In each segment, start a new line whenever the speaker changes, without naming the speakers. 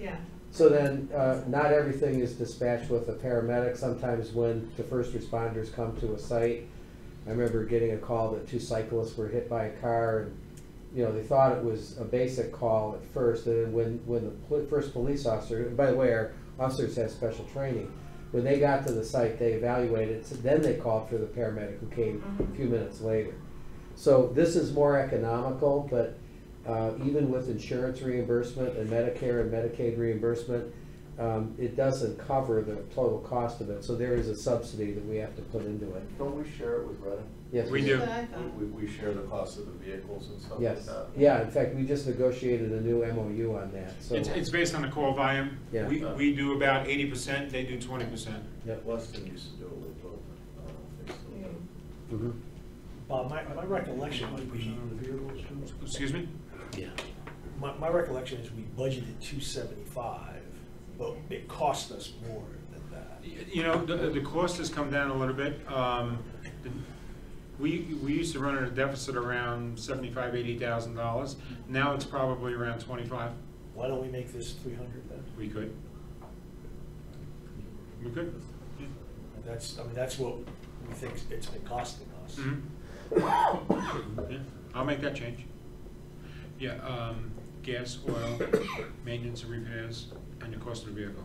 Yeah,
So then, uh, not everything is dispatched with a paramedic. Sometimes when the first responders come to a site, I remember getting a call that two cyclists were hit by a car and, you know, they thought it was a basic call at first. And then when, when the pol- first police officer, and by the way, our officers have special training. When they got to the site, they evaluated, it, so then they called for the paramedic who came a few minutes later. So this is more economical, but uh, even with insurance reimbursement and Medicare and Medicaid reimbursement, um, it doesn't cover the total cost of it, so there is a subsidy that we have to put into it.
Don't we share it with Redding?
Yes,
We
that's
do.
what I thought.
We, we share the cost of the vehicles and stuff like
Yes,
Uh,
that?
yeah, in fact, we just negotiated a new MOU on that, so.
It's, it's based on the call volume.
Yeah.
We, we do about eighty percent, they do twenty percent.
Yep.
Weston used to do it with both. I don't know if they still do.
Mhm.
Bob, Uh, my, my recollection was we, um,
Excuse me?
my, my recollection is we budgeted two seventy-five, but it cost us more than that.
Y- You know, the, the cost has come down a little bit. Um, the- We, we used to run at a deficit around seventy-five, eighty thousand dollars. Now it's probably around twenty-five.
Why don't we make this three hundred then?
We could. We could.
And That's, I mean, that's what we think it's been costing us.
Mhm. Yeah, I'll make that change. Yeah, um, gas, oil, maintenance and repairs, and the cost of the vehicle.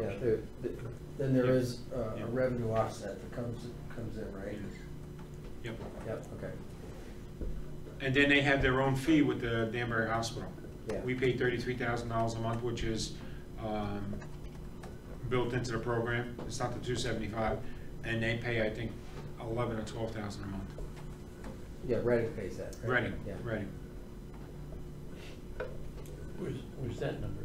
Yeah, there, th- then there is uh,
Yeah.
a revenue offset that comes, comes in, right?
Yep.
Yep, okay,
And then they have their own fee with the Danbury Hospital.
Yeah.
We pay thirty-three thousand dollars a month, which is, um, built into the program, it's not the two seventy-five, and they pay, I think, eleven or twelve thousand a month.
yeah, Redding pays that, right?
Reading,
Yeah.
Reading.
Where's, where's that number?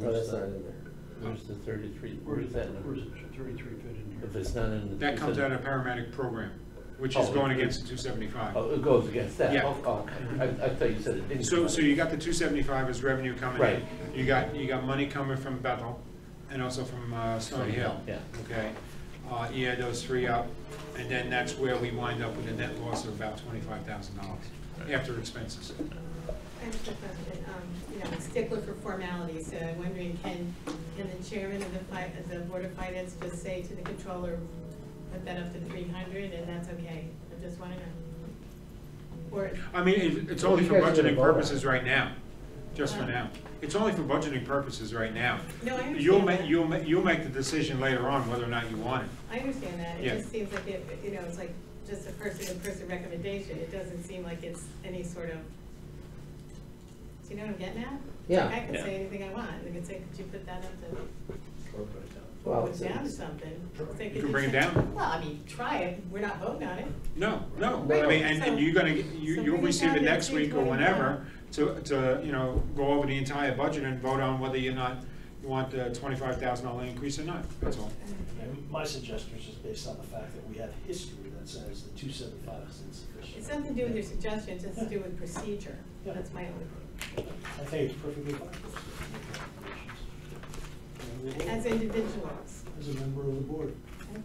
No, Oh, that's not in there.
Where's the thirty-three, where's that number?
thirty-three fit in
If it's not in the.
That comes out of paramedic program, which is
Oh,
going
it-
against the two seventy-five.
Oh, it goes against that?
Yeah.
Oh, oh, I, I thought you said it didn't.
So, so you got the two seventy-five as revenue coming in.
Right.
You got, you got money coming from Bethel and also from uh, Stony Hill.
Yeah.
Okay, uh, you add those three up, and then that's where we wind up with a net loss of about twenty-five thousand dollars after expenses.
I have a question, um, you know, I'm a stickler for formalities, so I'm wondering, can, can the chairman of the fi, of the board of finance just say to the controller, put that up to three hundred, and that's okay? I just wanna know. Or,
I mean, it- it's only
You
for
guys are gonna
budgeting
vote on it.
purposes right now, just for
Uh-huh.
now. It's only for budgeting purposes right now.
no, I understand
You'll make,
that.
you'll make, you'll make the decision later on whether or not you want it.
I understand that,
Yeah.
it just seems like it, you know, it's like just a person-to-person recommendation, it doesn't seem like it's any sort of, do you know what I'm getting at?
Yeah.
I can
Yeah.
say anything I want, they can say, could you put that up to
Or put it down.
Well,
put
it's-
down to something. Say,
You
could
can bring it
send-
down.
Well, I mean, try it, we're not voting on it.
No, no, I
Right,
mean, and, and
so-
you're gonna, get- you,
so
you'll
bring it
receive
down
it
to
next week or
325.
whenever to, to, you know, go over the entire budget and vote on whether you're not, you want the twenty-five thousand dollar increase or not, that's all.
And my suggestion is just based on the fact that we have history that says the two seventy-five is insufficient.
It's nothing to do with your suggestion, it's just to do with procedure,
Yeah.
that's my only,
I think it's perfectly fine.
as individuals.
As a member of the board.
Okay.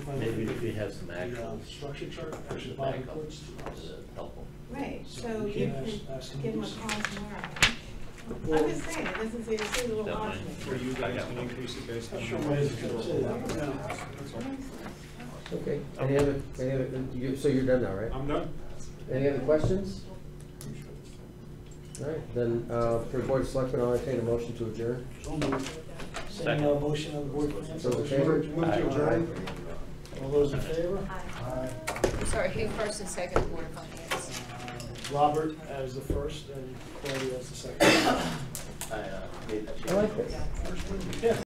If I
Maybe
look at
if we have some
the, uh,
actual.
Structure chart, actually,
the
Bob
backup,
reports to us.
uh, Helpful.
Right,
So
so
we
you
can ask-
can
ask them to
give them
do
a call
something.
tomorrow. I'm
Well-
just saying, it doesn't seem, it seems a little
Don't
odd
mind.
to
Or
me.
you guys can increase it based on.
Sure, why is it gonna say that?
That's all.
Okay, any other, any other, you- so you're done now, right?
I'm done.
Any other questions? All right, then, uh, for Board of Selectmen, I'll entertain a motion to adjourn.
So moved. Send a uh, motion on the board. for
Those in favor?
Move to adjourn. All those in favor? Aye.
Sorry, who first and second board of finance?
Uh, Robert as the first and Claudia as the second.
I, uh, made that change.
I like this.
Yeah.